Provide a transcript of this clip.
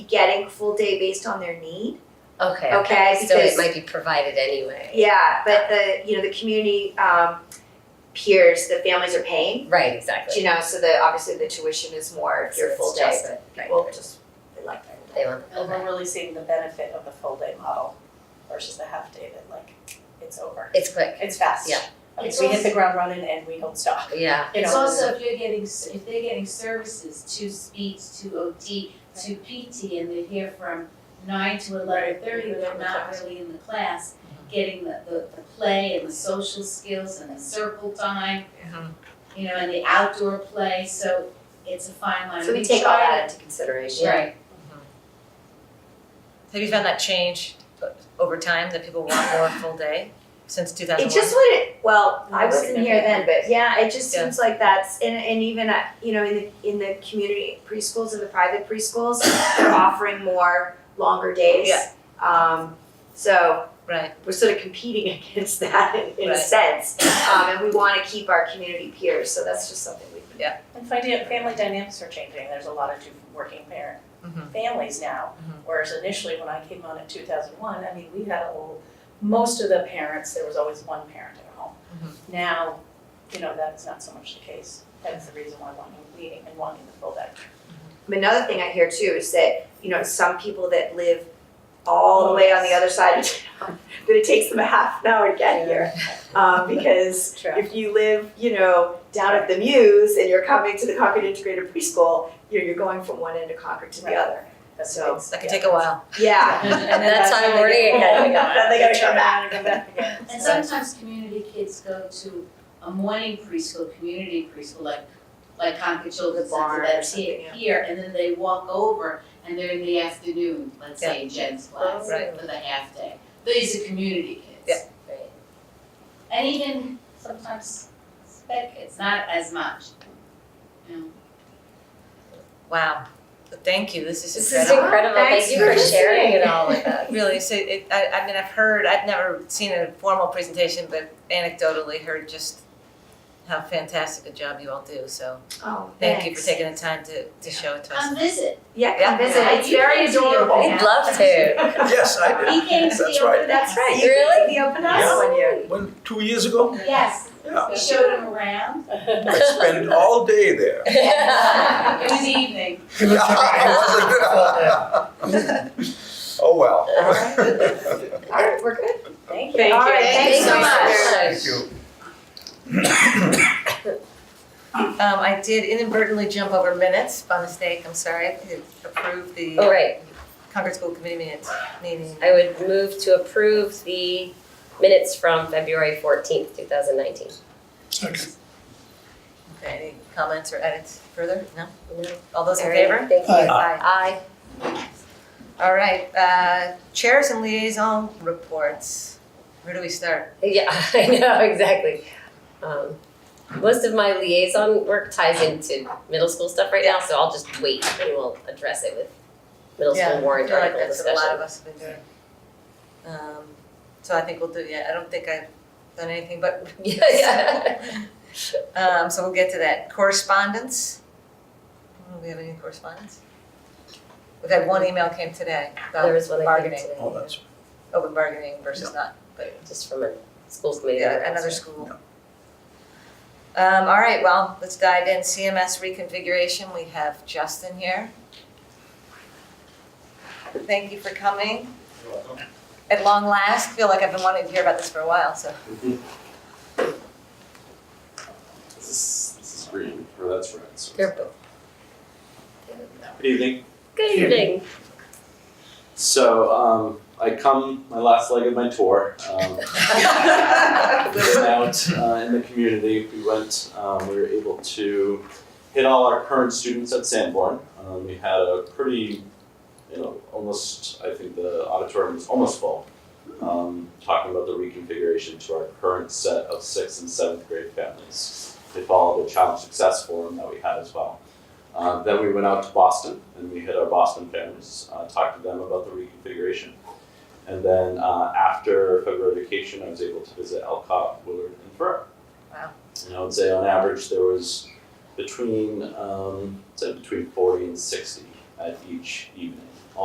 getting full day based on their need. Okay. Okay, So it because- might be provided anyway. Yeah, but the you know the community um, peers, the families are paying. Right, exactly. You know, so the obviously the tuition is more if So you're it's full day. just- But right, people Uh-huh. right. just they like that. They want, And okay. we're really seeing the benefit of the full day model versus the half day that like, it's over. It's quick, It's fast. Yeah. I mean, It's we hit also- the ground running and we don't stop, yeah. you know. It's also if you're getting, s- if they're getting services to speech, to OT, to PT, and they're here from nine to eleven thirty, but they're not really in the class, Mm-hmm. getting the, the, the play and the social skills and the circle time, Mm-hmm. you know, and the outdoor play, so it's a fine line. So we take all that try into consideration. to- Right, Have you found that change over time that people want more full day since two thousand It one? just wouldn't. Well, I More wasn't here then, but yeah, it just Yeah. seems like that's and and even at, you know in the in the community preschools and the private preschools, they're offering more longer days. Yeah. Um, so Right. we're sort of competing against that in, in a Right. sense, um, and we want to keep our community peers. So that's just something we. And finding, family dynamics are changing, there's a lot of two working parent Mhm. families now. Mhm. Whereas initially, when I came on in two thousand one, I mean, we had a little, most of the parents, there was always one parent at home. Now, you know, that's not so much the case, that's the reason why wanting, leading and wanting the full day. Another thing I hear too is that you know some people that live all the way on the other side of town, that it takes them a half an hour to get here, um, because True. If you live, you know, down at the Muse and you're coming to the Concord Integrated Preschool, you're, you're going from one end of Concord to the Right. other. That's So- it's- That could yeah. take a while. Yeah. And then That's by the why time we're they get eating it. home, Then they gotta come back. and come back again. and sometimes community kids go to a morning preschool, community preschool, like, like Concord Children's The barn Center or that's something, here, yeah. here, and then they walk over and they're in the afternoon, let's say in Jen's class, Oh. Right. for the half day. These are community kids. Right. And even sometimes spec, it's not as much. You know, Wow. But thank you. This is This is incredible. incredible. Thanks Thank you for for sharing it listening. all with us. Really, so it, I, I mean, I've heard, I've never seen a formal presentation, but anecdotally heard just how fantastic a job you all do. So Oh, thank you for taking the time to, to show it to us. Come visit. Yeah, Yeah. come visit. It's very adorable. We'd love to. Yes, I did. He came to That's the right. open house. That's right. You Really? did the open house Yeah. one year. When, two years ago, Yes, Yeah. we showed him around. I spent all day there. It was evening. It wasn't- Oh, well. All All right, we're good. Thank you. All right, Thank thanks you so much. Thank you. Um, I did inadvertently jump over minutes by mistake. I'm sorry. I approved the All right, Concord School Committee minutes meeting. I would move to approve the minutes from February fourteenth, two thousand nineteen. Second. Okay, any comments or edits further? No? No. All those in favor? Thank you. Aye. Aye. All right, uh, chairs and liaison reports. Where do we start? Yeah, I know, exactly. Um, most of my liaison work ties into middle school stuff right now, so I'll just wait and we'll address it with middle Yeah, school I warrant feel like article that's what a discussion. lot of us have been doing. Um, so I think we'll do, yeah, I don't think I've done anything, but, Yeah, yeah. um, so we'll get to that. Correspondence? Do we have any correspondence? We've had one email came today There about was one I think bargaining, Oh, today, that's, open bargaining versus not, but just from a school committee. Yeah, another school. Um, all right, well, let's dive in, CMS reconfiguration, we have Justin here. Thank you for coming. At long last, feel like I've been wanting to hear about this for a while, so. This is, this is green, or that's red. So They're both. Good evening. Good evening. So um, I come my last leg of my tour. Um, been out uh, in the community. We went. Um, we were able to hit all our current students at Sanborn. Um, we had a pretty, you know, almost. I think the auditorium was almost full. Um, talking about the reconfiguration to our current set of sixth and seventh grade families. They followed the Child Success Forum that we had as well. Uh, then we went out to Boston and we hit our Boston families, uh, talked to them about the reconfiguration. And then uh, after February vacation, I was able to visit Elcott, Willard, and Furrow. Wow. And I would say on average there was between um, say between forty and sixty at each evening.